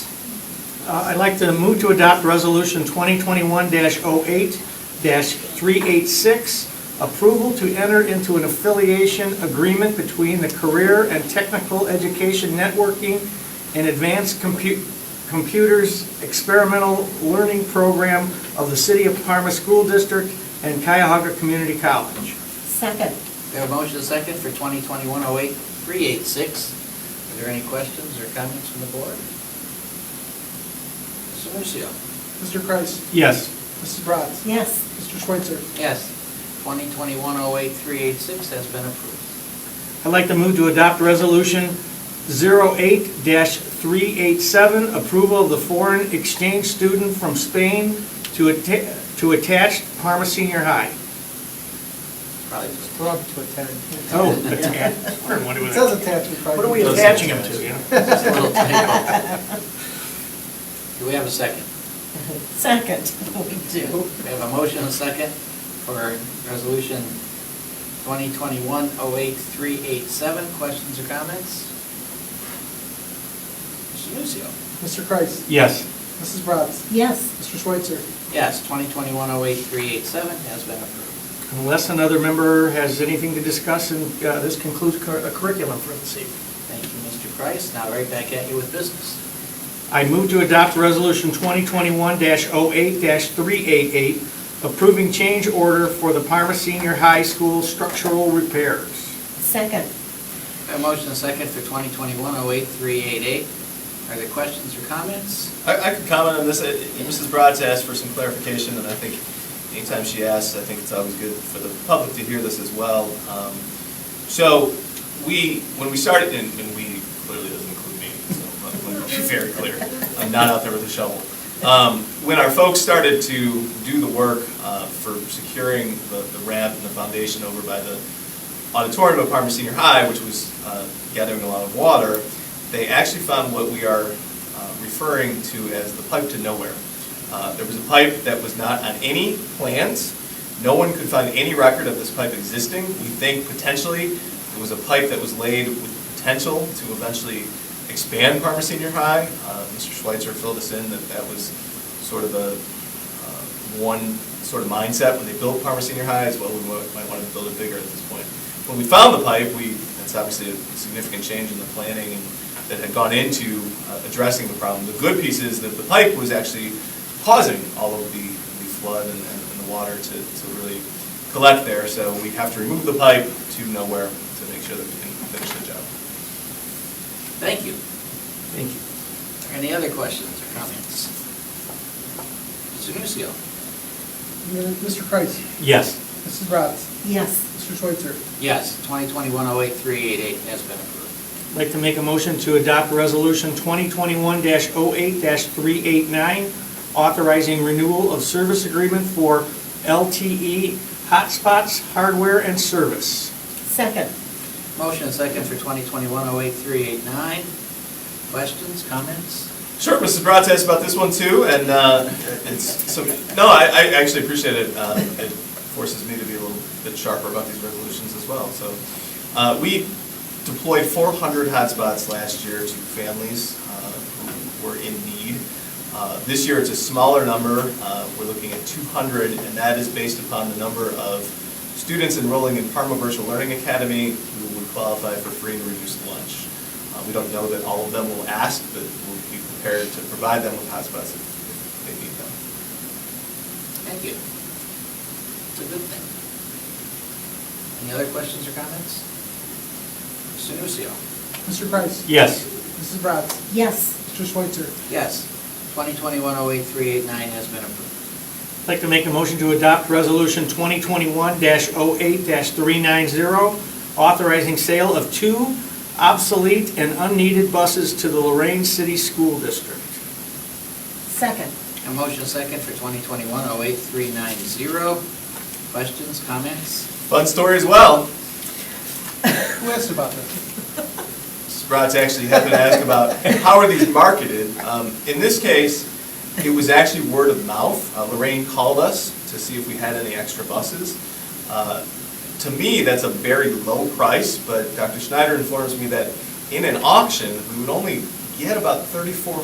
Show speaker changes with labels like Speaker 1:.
Speaker 1: Uh, I'd like to move to adopt Resolution 2021-08-386, approval to enter into an affiliation agreement between the Career and Technical Education Networking and Advanced Compu- Computers Experimental Learning Program of the City of Parma School District and Cuyahoga Community College.
Speaker 2: Second.
Speaker 3: We have a motion and a second for 2021-08-386. Are there any questions or comments from the board? Mr. Nucio.
Speaker 4: Mr. Kreis.
Speaker 1: Yes.
Speaker 4: Mrs. Bratz.
Speaker 2: Yes.
Speaker 4: Mr. Schweitzer.
Speaker 3: Yes, 2021-08-386 has been approved.
Speaker 1: I'd like to move to adopt Resolution 08-387, approval of the foreign exchange student from Spain to atta- to attach Parma Senior High.
Speaker 3: Probably just,
Speaker 4: Rob to attend.
Speaker 1: Oh, attach, I was wondering what it-
Speaker 4: It says attachment. probably.
Speaker 1: What are we
Speaker 3: Doesn't
Speaker 1: attaching him to, you know?
Speaker 3: just a little typo. Do we have a second?
Speaker 2: Second. We do.
Speaker 3: We have a motion and a second for resolution 2021-08-387. Questions or comments? Mr. Nucio.
Speaker 4: Mr. Kreis.
Speaker 1: Yes.
Speaker 4: Mrs. Bratz.
Speaker 2: Yes.
Speaker 4: Mr. Schweitzer.
Speaker 3: Yes, 2021-08-387 has been approved.
Speaker 1: Unless another member has anything to discuss, and uh, this concludes cur- uh, curriculum for this evening.
Speaker 3: Thank you, Mr. Kreis. Now right back at you with business.
Speaker 1: I move to adopt Resolution 2021-08-388, approving change order for the Parma Senior High School structural repairs.
Speaker 2: Second.
Speaker 3: We have a motion and a second for 2021-08-388. Are there questions or comments?
Speaker 5: I, I could comment on this. Uh, Mrs. Bratz asked for some clarification, and I think anytime she asks, I think it's always good for the public to hear this as well. Um, So, we, when we started, and, and we clearly doesn't include me, so let me be very clear. I'm not out there with a shovel. Um, When our folks started to do the work uh, for securing the the ramp and the foundation over by the auditorium of Parma Senior High, which was uh, gathering a lot of water, they actually found what we are uh, referring to as the pipe to nowhere. Uh, There was a pipe that was not on any plans. No one could find any record of this pipe existing. We think potentially it was a pipe that was laid with potential to eventually expand Parma Senior High. Uh, Mr. Schweitzer filled us in that that was sort of a uh, one sort of mindset when they built Parma Senior High, as well, we wa- might want to build it bigger at this point. When we found the pipe, we, that's obviously a significant change in the planning and that had gone into uh, addressing the problem. The good piece is that the pipe was actually causing all of the the flood and and and the water to, to really collect there, so we have to remove the pipe to nowhere to make sure that we can finish the job.
Speaker 3: Thank you.
Speaker 1: Thank you.
Speaker 3: Are Any other questions or comments? Mr. Nucio.
Speaker 4: Mr. Kreis.
Speaker 1: Yes.
Speaker 4: Mrs. Bratz.
Speaker 2: Yes.
Speaker 4: Mr. Schweitzer.
Speaker 3: Yes, 2021-08-388 has been approved.
Speaker 1: I'd like to make a motion to adopt Resolution 2021-08-389, authorizing renewal of service agreement for LTE hotspots, hardware, and service.
Speaker 2: Second.
Speaker 3: Motion and second for 2021-08-389. Questions, comments?
Speaker 5: Sure, Mrs. Bratz asked about this one too, and uh, it's, so, no, I, I actually appreciate it. Uh, It forces me to be a little bit sharper about these resolutions as well, so. uh, We deployed 400 hotspots last year to families uh, who were in need. Uh, This year, it's a smaller number, Uh, we're looking at 200, and that is based upon the number of students enrolling in Parma Virtual Learning Academy who would qualify for free and reduced lunch. Uh, We don't know that all of them will ask, but we'll be prepared to provide them with hotspots if if they need them.
Speaker 3: Thank you. It's a good thing. Any other questions or comments? Mr. Nucio.
Speaker 4: Mr. Kreis.
Speaker 1: Yes.
Speaker 4: Mrs. Bratz.
Speaker 2: Yes.
Speaker 4: Mr. Schweitzer.
Speaker 3: Yes, 2021-08-389 has been approved.
Speaker 1: I'd like to make a motion to adopt Resolution 2021-08-390, authorizing sale of two obsolete and unneeded buses to the Lorraine City School District.
Speaker 2: Second.
Speaker 3: A motion and second for 2021-08-390. Questions, comments?
Speaker 5: Fun story as well.
Speaker 4: Who asked about this?
Speaker 5: Mrs. Bratz actually happened to ask about how are these marketed. Um, In this case, it was actually word of mouth. Uh, Lorraine called us to see if we had any extra buses. Uh, To me, that's a very low price, but Dr. Schneider informs me that in an auction, we would only get about 3,400